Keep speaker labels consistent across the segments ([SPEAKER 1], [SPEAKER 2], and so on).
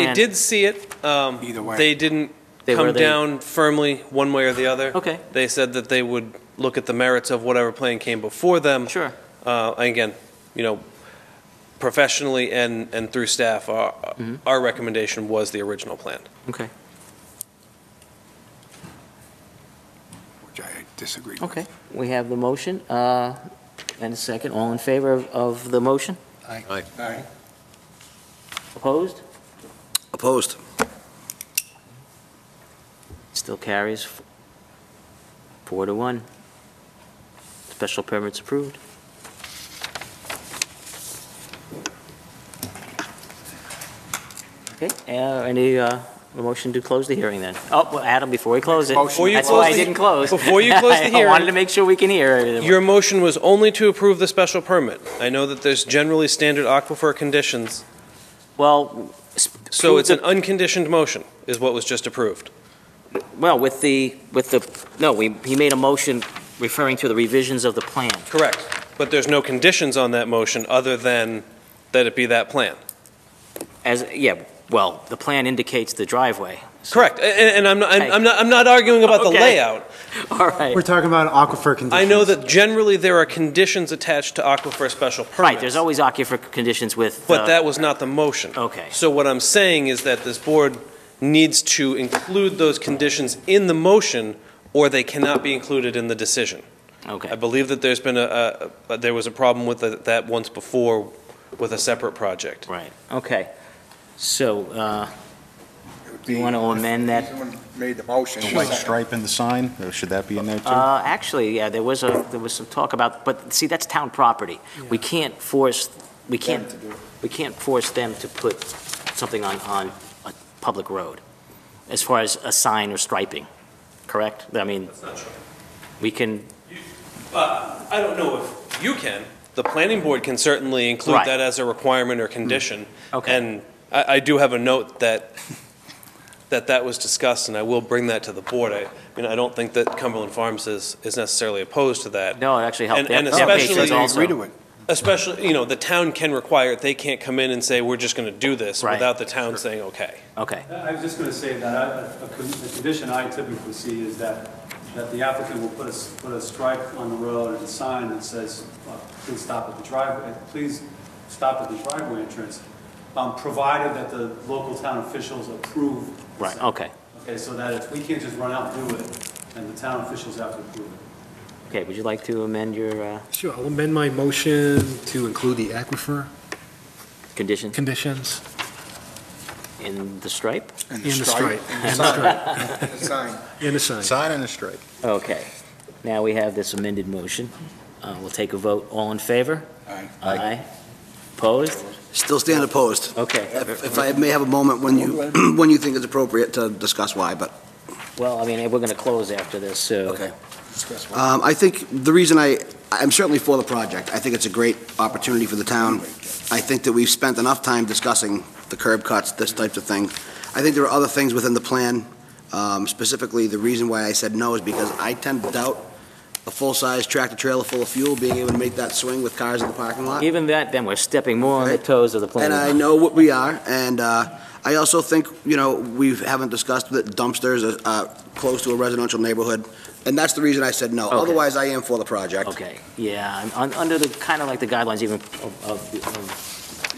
[SPEAKER 1] I
[SPEAKER 2] understand.
[SPEAKER 1] did see it. Um,
[SPEAKER 3] Either way.
[SPEAKER 1] They didn't
[SPEAKER 2] They were-
[SPEAKER 1] come
[SPEAKER 2] they-
[SPEAKER 1] down firmly one way or the other.
[SPEAKER 2] Okay.
[SPEAKER 1] They said that they would look at the merits of whatever plan came before them.
[SPEAKER 2] Sure.
[SPEAKER 1] Uh, and again, you know, professionally and, and through staff, our,
[SPEAKER 2] Mm-hmm.
[SPEAKER 1] our recommendation was the original plan.
[SPEAKER 2] Okay.
[SPEAKER 3] which I disagree with.
[SPEAKER 2] Okay. We have the motion uh, and a second. All in favor of, of the motion?
[SPEAKER 3] Aye.
[SPEAKER 2] Opposed?
[SPEAKER 4] Opposed?
[SPEAKER 2] Still carries f- four to one. Special permit's approved. Okay, uh, any, uh, a motion to close the hearing then? Oh, well, Adam, before we close it.
[SPEAKER 3] Before you
[SPEAKER 2] That's why I
[SPEAKER 1] close the-
[SPEAKER 2] didn't close.
[SPEAKER 1] before you close the
[SPEAKER 2] I wanted
[SPEAKER 1] hearing-
[SPEAKER 2] to make sure we can hear everything.
[SPEAKER 1] Your motion was only to approve the special permit. I know that there's generally standard aquifer conditions,
[SPEAKER 2] Well. s-
[SPEAKER 1] so it's an
[SPEAKER 2] prove
[SPEAKER 1] unconditioned motion, is what was just approved.
[SPEAKER 2] the- Well, with the, with the, no, we, he made a motion referring to the revisions of the plan.
[SPEAKER 1] Correct. But there's no conditions on that motion other than that it be that plan.
[SPEAKER 2] As, yeah, well, the plan indicates the driveway.
[SPEAKER 1] Correct, A- and, and I'm not, I'm- I'm not, I'm not arguing about the
[SPEAKER 2] Okay.
[SPEAKER 1] layout.
[SPEAKER 2] All right.
[SPEAKER 5] We're talking about aquifer conditions.
[SPEAKER 1] I know that generally there are conditions attached to aquifer special permits.
[SPEAKER 2] Right, there's always aquifer conditions with. uh,
[SPEAKER 1] But that was not the motion.
[SPEAKER 2] Okay.
[SPEAKER 1] So what I'm saying is that this board needs to include those conditions in the motion, or they cannot be included in the decision. I
[SPEAKER 2] Okay,
[SPEAKER 1] believe that there's been a- a, a- there was a problem with the- that once before with a separate project.
[SPEAKER 2] right, okay. So, uh, Do you wanna amend that?
[SPEAKER 3] Someone made the motion.
[SPEAKER 6] The white stripe in the sign, or should that be in there too?
[SPEAKER 2] uh, actually, yeah, there was a, there was some talk about, but see, that's town property. We can't force, we can't, we can't force them to put something on, on a public road as far as a sign or striping, correct? I mean,
[SPEAKER 1] That's not true.
[SPEAKER 2] we can,
[SPEAKER 1] Uh, I don't know if you can. The planning board can certainly include
[SPEAKER 2] Right.
[SPEAKER 1] that as a requirement or condition.
[SPEAKER 2] okay,
[SPEAKER 1] And I, I do have a note that, that that was discussed, and I will bring that to the board. I, I mean, I don't think that Cumberland Farms is, is necessarily opposed to that,
[SPEAKER 2] no, it actually helped.
[SPEAKER 1] And-
[SPEAKER 2] their-
[SPEAKER 1] and
[SPEAKER 2] their patrons
[SPEAKER 1] especially-
[SPEAKER 3] I
[SPEAKER 2] also.
[SPEAKER 3] agree to it.
[SPEAKER 1] especially, you know, the town can require it. They can't come in and say, we're just going to do this
[SPEAKER 2] Right.
[SPEAKER 1] without the town saying, okay.
[SPEAKER 2] Okay,
[SPEAKER 7] I was just going to say that I- a con- the condition I typically see is that, that the applicant will put a, s- put a stripe on the road and a sign that says, uh, please stop at the driveway, please stop at the driveway entrance, um, provided that the local town officials approve. the
[SPEAKER 2] right,
[SPEAKER 7] sign.
[SPEAKER 2] okay.
[SPEAKER 7] Okay, so that it's, we can't just run out and do it, and the town officials have to approve it.
[SPEAKER 2] Okay, would you like to amend your uh,
[SPEAKER 5] Sure, I'll amend my motion to include the aquifer
[SPEAKER 2] condition
[SPEAKER 5] conditions
[SPEAKER 2] in the stripe?
[SPEAKER 3] And
[SPEAKER 5] in the stripe.
[SPEAKER 3] And the sign. And the sign.
[SPEAKER 5] In the sign.
[SPEAKER 6] Sign and a stripe.
[SPEAKER 2] Okay, now we have this amended motion. Uh, We'll take a vote. All in favor?
[SPEAKER 3] Aye.
[SPEAKER 2] Aye. Opposed?
[SPEAKER 4] Still stand opposed.
[SPEAKER 2] Okay.
[SPEAKER 4] If if I may have a moment when you, when you think it's appropriate to discuss why, but
[SPEAKER 2] Well, I mean, we're going to close after this, so.
[SPEAKER 4] Okay. Um, I think the reason I, I'm certainly for the project. I think it's a great opportunity for the town. I think that we've spent enough time discussing the curb cuts, this type of thing. I think there are other things within the plan. Um, Specifically, the reason why I said no is because I tend to doubt a full-size tractor-trailer full of fuel being able to make that swing with cars in the parking lot.
[SPEAKER 2] Even that, then we're stepping more on the
[SPEAKER 4] Right.
[SPEAKER 2] toes of the planning.
[SPEAKER 4] And I know what we are, and uh, I also think, you know, we haven't discussed that dumpsters are uh, close to a residential neighborhood, and that's the reason I said no.
[SPEAKER 2] Okay.
[SPEAKER 4] Otherwise, I am for the project.
[SPEAKER 2] Okay, yeah, I'm- un- under the, kind of like the guidelines even of, of the- of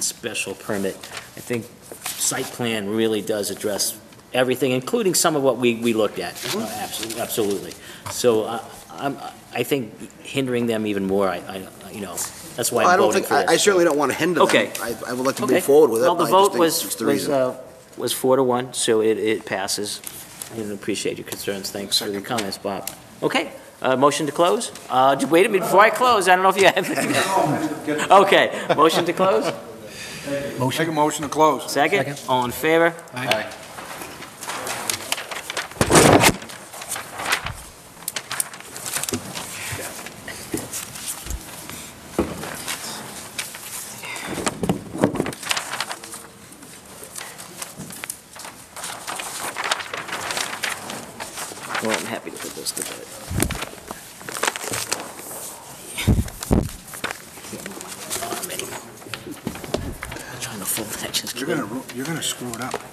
[SPEAKER 2] special permit, I think site plan really does address everything, including some of what we, we looked at.
[SPEAKER 4] Mm-hmm.
[SPEAKER 2] Absolutely, absolutely. So I, I'm, I think hindering them even more, I, I, you know, that's why
[SPEAKER 4] I
[SPEAKER 2] I'm
[SPEAKER 4] don't
[SPEAKER 2] voting
[SPEAKER 4] think,
[SPEAKER 2] for
[SPEAKER 4] I
[SPEAKER 2] this.
[SPEAKER 4] I certainly don't want to hinder them.
[SPEAKER 2] Okay.
[SPEAKER 4] I I would like to
[SPEAKER 2] Okay.
[SPEAKER 4] move forward with it.
[SPEAKER 2] Well, the
[SPEAKER 4] but I just
[SPEAKER 2] vote
[SPEAKER 4] think it's
[SPEAKER 2] was,
[SPEAKER 4] the
[SPEAKER 2] was,
[SPEAKER 4] reason.
[SPEAKER 2] uh, was four to one, so it, it passes. I didn't appreciate your concerns, thanks for the comments, Bob. Okay, uh, motion to close? Uh, j- wait a minute, before I close, I don't know if you have. Okay, motion to close,
[SPEAKER 3] Make a motion to close.
[SPEAKER 2] second, all in favor? Well, I'm happy to put this to bed. Can't move my arm anymore. I'm Trying to fold that, just
[SPEAKER 3] You're
[SPEAKER 2] kidding.
[SPEAKER 3] gonna, ru- you're gonna screw it up.